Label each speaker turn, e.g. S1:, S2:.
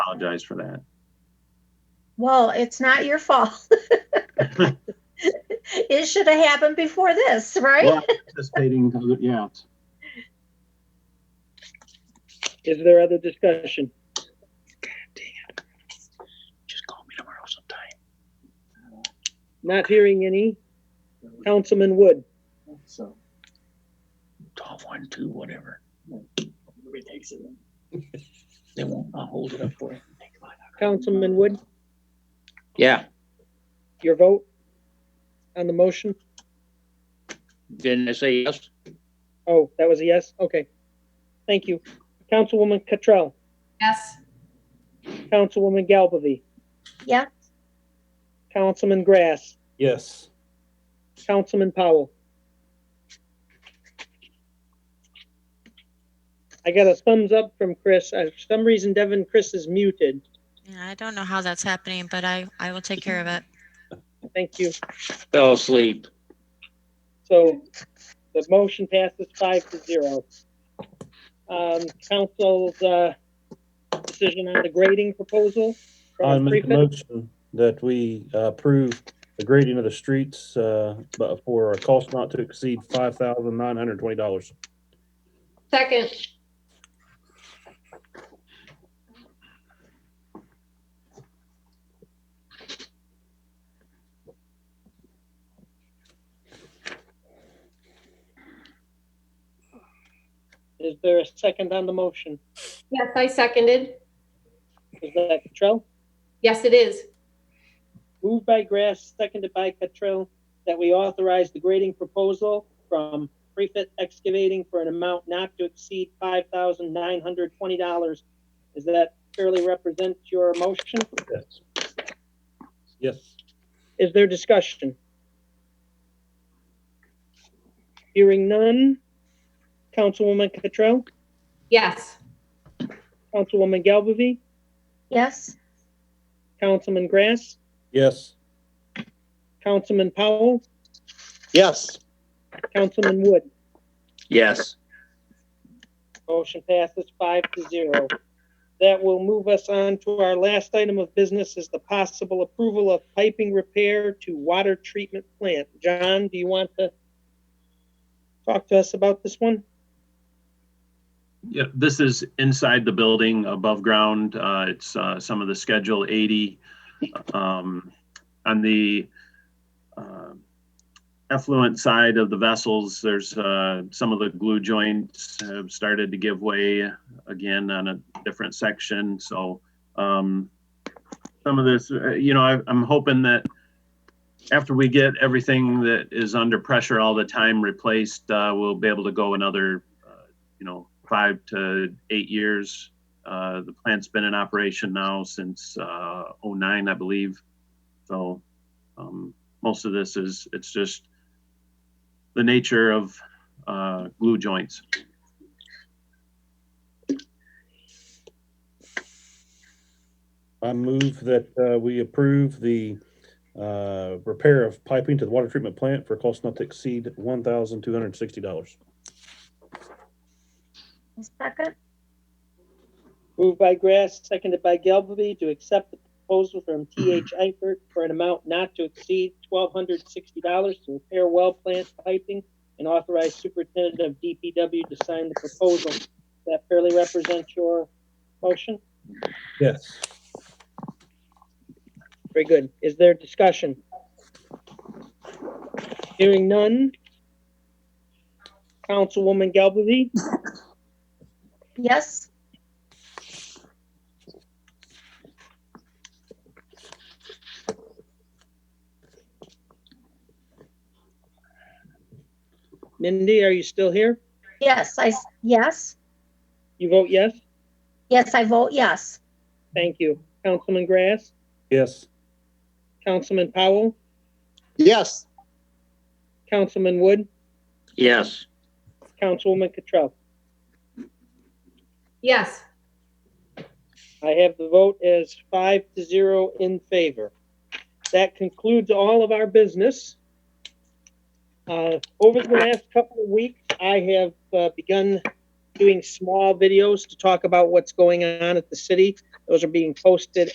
S1: apologize for that.
S2: Well, it's not your fault. It should have happened before this, right?
S1: Well, Anticipating, other- yeah, it's-
S3: Is there other discussion?
S4: Just call me tomorrow sometime.
S3: Not hearing any. Councilman Wood,
S5: So,
S4: Twelve, one, two, whatever.
S5: everybody takes it.
S4: They won't, I'll hold it up for you.
S3: Councilman Wood,
S4: Yeah,
S3: your vote on the motion?
S4: didn't I say yes?
S3: Oh, that was a yes? Okay. Thank you. Councilwoman Cottrell,
S6: Yes.
S3: Councilwoman Galbavy,
S2: Yeah,
S3: Councilman Grass,
S5: Yes.
S3: Councilman Powell. I got a thumbs up from Chris. Uh, For some reason, Devin, Chris is muted.
S7: Yeah, I don't know how that's happening, but I, I will take care of it.
S3: Thank you.
S4: Fell asleep.
S3: So the motion passes five to zero. Um, council's, uh, decision on the grading proposal
S8: I
S3: from
S8: make a
S3: Prefect.
S8: motion that we uh, approve the grading of the streets, uh, but for a cost not to exceed five thousand nine hundred twenty dollars.
S6: Second.
S3: Is there a second on the motion?
S6: Yes, I seconded.
S3: Is that Cottrell?
S6: Yes, it is.
S3: Moved by Grass, seconded by Cottrell, that we authorize the grading proposal from Prefect Excavating for an amount not to exceed five thousand nine hundred twenty dollars. Does that fairly represent your motion?
S8: Yes. Yes.
S3: Is there discussion? Hearing none. Councilwoman Cottrell,
S6: Yes.
S3: Councilwoman Galbavy,
S2: yes,
S3: Councilman Grass,
S8: Yes.
S3: Councilman Powell,
S4: Yes.
S3: Councilman Wood.
S4: Yes.
S3: Motion passes five to zero. That will move us on to our last item of business is the possible approval of piping repair to water treatment plant. John, do you want to talk to us about this one?
S1: Yeah, this is inside the building, above ground. Uh, it's uh, some of the Schedule 80. Um, on the uh, effluent side of the vessels, there's uh, some of the glue joints have started to give way again on a different section. So um, some of this, uh, you know, I, I'm hoping that after we get everything that is under pressure all the time replaced, uh, we'll be able to go another, uh, you know, five to eight years. Uh, the plant's been in operation now since uh, 09, I believe. So um, most of this is it's just the nature of uh, glue joints.
S8: I move that uh, we approve the uh, repair of piping to the water treatment plant for a cost not to exceed one thousand two hundred sixty dollars.
S2: A second,
S3: Moved by Grass, seconded by Galbavy to accept the proposal from TH Eifert for an amount not to exceed twelve hundred sixty dollars to repair well plant piping and authorize superintendent of DPW to sign the proposal. That fairly represents your motion?
S8: Yes.
S3: Very good. Is there discussion? Hearing none. Councilwoman Galbavy,
S2: yes,
S3: Mindy, are you still here?
S2: yes, I, s- yes,
S3: You vote yes?
S2: yes, I vote yes.
S3: Thank you. Councilman Grass,
S8: Yes.
S3: Councilman Powell,
S4: Yes.
S3: Councilman Wood,
S4: Yes.
S3: Councilwoman Cottrell.
S6: Yes.
S3: I have the vote as five to zero in favor. That concludes all of our business. Uh, over the last couple of weeks, I have uh, begun doing small videos to talk about what's going on at the city. Those are being posted